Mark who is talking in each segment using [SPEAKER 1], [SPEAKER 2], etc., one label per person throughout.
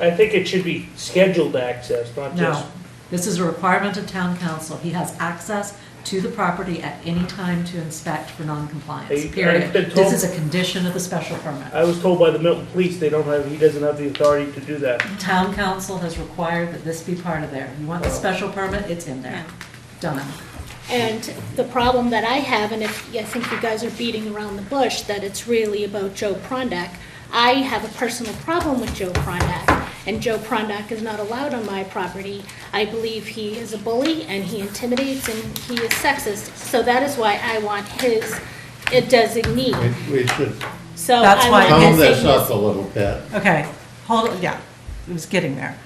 [SPEAKER 1] I think it should be scheduled access, not just,
[SPEAKER 2] No, this is a requirement of town council. He has access to the property at any time to inspect for
[SPEAKER 1] Hey,
[SPEAKER 2] noncompliance,
[SPEAKER 1] I've
[SPEAKER 2] period.
[SPEAKER 1] been
[SPEAKER 2] This
[SPEAKER 1] told-
[SPEAKER 2] is a condition of the special permit.
[SPEAKER 1] I was told by the Milton Police, they don't have, he doesn't have the authority to do that.
[SPEAKER 2] Town council has required that this be part of there. You want the special permit, it's in there. Done.
[SPEAKER 3] And the problem that I have, and if, I think you guys are beating around the bush, that it's really about Joe Prondak. I have a personal problem with Joe Prondak, and Joe Prondak is not allowed on my property. I believe he is a bully, and he intimidates, and he is sexist. So that is why I want his a designee.
[SPEAKER 4] We- We should
[SPEAKER 3] So
[SPEAKER 2] That's
[SPEAKER 3] I
[SPEAKER 2] why
[SPEAKER 3] want
[SPEAKER 4] calm
[SPEAKER 2] I'm
[SPEAKER 4] this up a
[SPEAKER 3] his
[SPEAKER 4] little bit.
[SPEAKER 2] Okay, hold, it. yeah, it was getting there.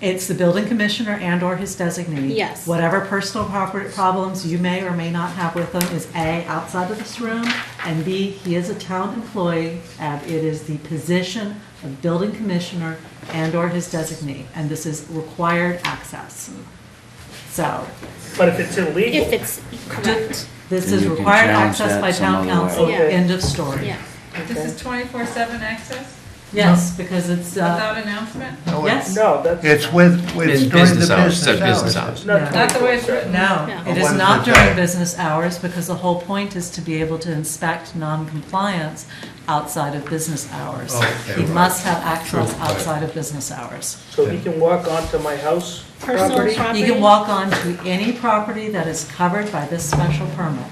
[SPEAKER 2] It's the building commissioner and/or his designee.
[SPEAKER 3] Hmm. Yes.
[SPEAKER 2] Whatever personal property problems you may or may not have with him is A, outside of this room, and B, he is a town employee, and it is the position of building commissioner and/or his designee, and this is required access. So,
[SPEAKER 1] But if it's
[SPEAKER 3] if
[SPEAKER 1] illegal,
[SPEAKER 3] it's correct.
[SPEAKER 2] this
[SPEAKER 5] Then
[SPEAKER 2] is
[SPEAKER 5] you can
[SPEAKER 2] required
[SPEAKER 5] challenge
[SPEAKER 2] access
[SPEAKER 5] that
[SPEAKER 2] by
[SPEAKER 5] some
[SPEAKER 2] town
[SPEAKER 5] other way.
[SPEAKER 2] council,
[SPEAKER 3] Yeah.
[SPEAKER 2] end of story.
[SPEAKER 3] Yeah,
[SPEAKER 6] This is twenty-four seven access
[SPEAKER 2] Yes, because it's, uh,
[SPEAKER 6] without announcement?
[SPEAKER 7] No, it-
[SPEAKER 2] yes,
[SPEAKER 1] no, that's.
[SPEAKER 7] It's with, with during
[SPEAKER 8] In
[SPEAKER 7] the
[SPEAKER 8] business hours,
[SPEAKER 7] business
[SPEAKER 8] said business
[SPEAKER 7] hours.
[SPEAKER 8] hours.
[SPEAKER 1] not
[SPEAKER 6] Not the way it's
[SPEAKER 1] 24/7.
[SPEAKER 6] written.
[SPEAKER 2] No,
[SPEAKER 3] No.
[SPEAKER 2] it
[SPEAKER 7] Or
[SPEAKER 2] is
[SPEAKER 7] one
[SPEAKER 2] not
[SPEAKER 7] per
[SPEAKER 2] during
[SPEAKER 7] day.
[SPEAKER 2] business hours because the whole point is to be able to inspect non-compliance outside of business hours.
[SPEAKER 7] Oh, Okay,
[SPEAKER 2] He
[SPEAKER 7] right.
[SPEAKER 2] must have access
[SPEAKER 7] True, right.
[SPEAKER 2] outside of business hours.
[SPEAKER 1] So he can walk onto my house
[SPEAKER 3] Personal
[SPEAKER 1] property?
[SPEAKER 3] property.
[SPEAKER 2] He can walk on to any property that is covered by this special permit.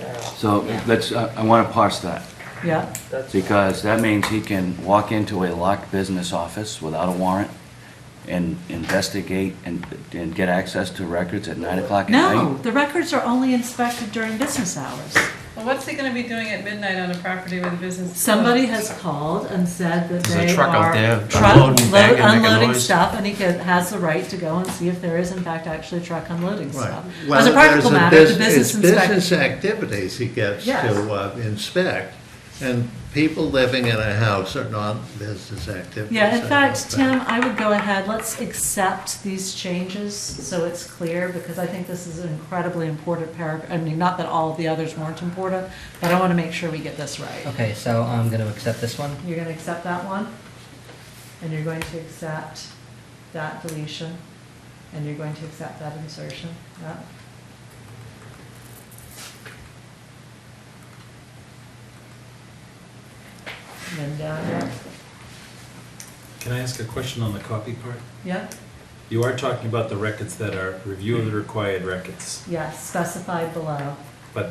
[SPEAKER 1] Yeah,
[SPEAKER 5] So let's, uh, I want to parse that,
[SPEAKER 2] Yeah,
[SPEAKER 1] that's-
[SPEAKER 5] because that means he can walk into a locked business office without a warrant and investigate and, and get access to records at nine o'clock at night?
[SPEAKER 2] no, the records are only inspected during business hours.
[SPEAKER 6] Well, what's he gonna be doing at midnight on a property with a business? is
[SPEAKER 2] Somebody
[SPEAKER 6] closed?
[SPEAKER 2] has called and said that
[SPEAKER 8] There's a
[SPEAKER 2] they
[SPEAKER 8] truck out
[SPEAKER 2] are
[SPEAKER 8] there
[SPEAKER 2] truck-
[SPEAKER 8] unloading,
[SPEAKER 2] load-
[SPEAKER 8] banging, making
[SPEAKER 2] unloading
[SPEAKER 8] noise.
[SPEAKER 2] stuff, and he could- has the right to go and see if there is in fact actually a truck unloading stuff.
[SPEAKER 4] Well,
[SPEAKER 2] As a practical
[SPEAKER 4] there's a
[SPEAKER 2] matter, the
[SPEAKER 4] bus-
[SPEAKER 2] business
[SPEAKER 4] it's
[SPEAKER 2] inspector,
[SPEAKER 4] business activities he gets
[SPEAKER 2] Yes.
[SPEAKER 4] to uh, inspect, and people living in a house are not business activities.
[SPEAKER 2] yeah,
[SPEAKER 4] I
[SPEAKER 2] in
[SPEAKER 4] don't
[SPEAKER 2] fact,
[SPEAKER 4] think.
[SPEAKER 2] Tim, I would go ahead, let's accept these changes so it's clear, because I think this is an incredibly important paragraph, I mean, not that all of the others weren't important, but I want to make sure we get this right.
[SPEAKER 9] Okay, so I'm gonna accept this one.
[SPEAKER 2] You're going to accept that one, and you're going to accept that deletion, and you're going to accept that insertion, yeah? And then down here,
[SPEAKER 10] Can I ask a question on the copy part?
[SPEAKER 2] yeah,
[SPEAKER 10] You are talking about the records that are review of the required records,
[SPEAKER 2] yeah, specified below.
[SPEAKER 10] but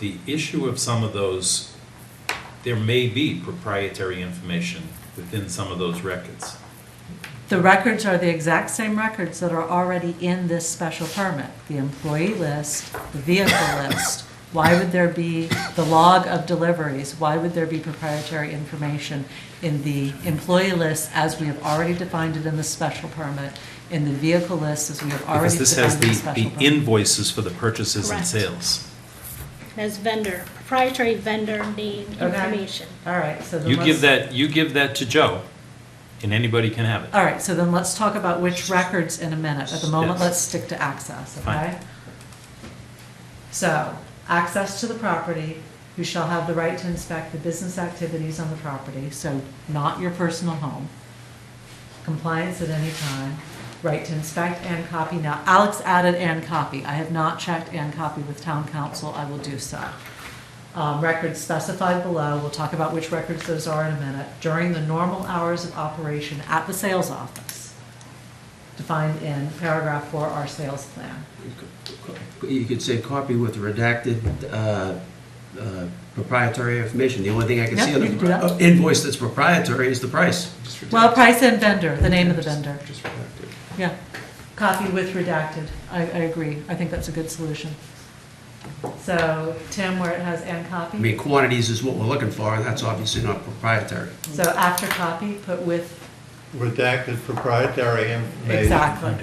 [SPEAKER 10] the issue of some of those, there may be proprietary information within some of those records.
[SPEAKER 2] The records are the exact same records that are already in this special permit. The employee list, the vehicle list. Why would there be the log of deliveries? Why would there be proprietary information in the employee list as we have already defined it in the special permit? In the vehicle list as we have already
[SPEAKER 10] Because this has
[SPEAKER 2] defined in
[SPEAKER 10] the
[SPEAKER 2] the special
[SPEAKER 10] the
[SPEAKER 2] permit?
[SPEAKER 10] invoices for the purchases and
[SPEAKER 3] Correct.
[SPEAKER 10] sales.
[SPEAKER 3] as vendor, proprietary vendor name
[SPEAKER 2] Okay.
[SPEAKER 3] information.
[SPEAKER 2] All right, so then
[SPEAKER 10] You give
[SPEAKER 2] let's-
[SPEAKER 10] that, you give that to Joe, and anybody can have it.
[SPEAKER 2] All right, so then let's talk about which records in a minute. At the moment,
[SPEAKER 10] Yes.
[SPEAKER 2] let's stick to access,
[SPEAKER 10] Fine.
[SPEAKER 2] okay? So, access to the property, who shall have the right to inspect the business activities on the property, so not your personal home. Compliance at any time, right to inspect and copy. Now, Alex added and copy. I have not checked and copy with town council. I will do so. Um, Records specified below, we'll talk about which records those are in a minute, during the normal hours of operation at the sales office, defined in paragraph four, our sales plan.
[SPEAKER 8] You could say copy with redacted uh, uh, proprietary information. The only thing I can
[SPEAKER 2] Yeah,
[SPEAKER 8] see on
[SPEAKER 2] you can do that.
[SPEAKER 8] the uh, invoice that's proprietary is the price.
[SPEAKER 2] Well, price and vendor, the name of the vendor,
[SPEAKER 8] Just redacted.
[SPEAKER 2] yeah. Copy with redacted, I, I agree, I think that's a good solution. So, Tim, where it has and
[SPEAKER 8] I
[SPEAKER 2] copy,
[SPEAKER 8] mean, quantities is what we're looking for, and that's obviously not proprietary.
[SPEAKER 2] so after copy, put with,
[SPEAKER 4] Redacted proprietary information.
[SPEAKER 2] exactly,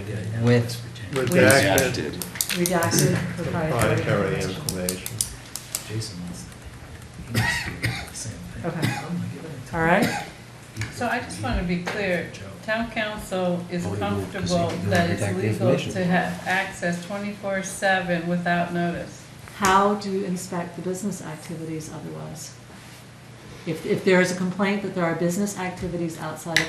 [SPEAKER 9] With,
[SPEAKER 4] Redacted
[SPEAKER 2] redacted proprietary.
[SPEAKER 4] proprietary information.
[SPEAKER 10] Jason wants.
[SPEAKER 2] Okay, all right?
[SPEAKER 6] So I just wanna be clear, town council is
[SPEAKER 8] Oh, they moved 'cause they
[SPEAKER 6] comfortable
[SPEAKER 8] can do
[SPEAKER 6] that it's
[SPEAKER 8] redacted
[SPEAKER 6] legal
[SPEAKER 8] information.
[SPEAKER 6] to have access twenty-four seven without notice.
[SPEAKER 2] How do you inspect the business activities otherwise? If, if there is a complaint that there are business activities outside of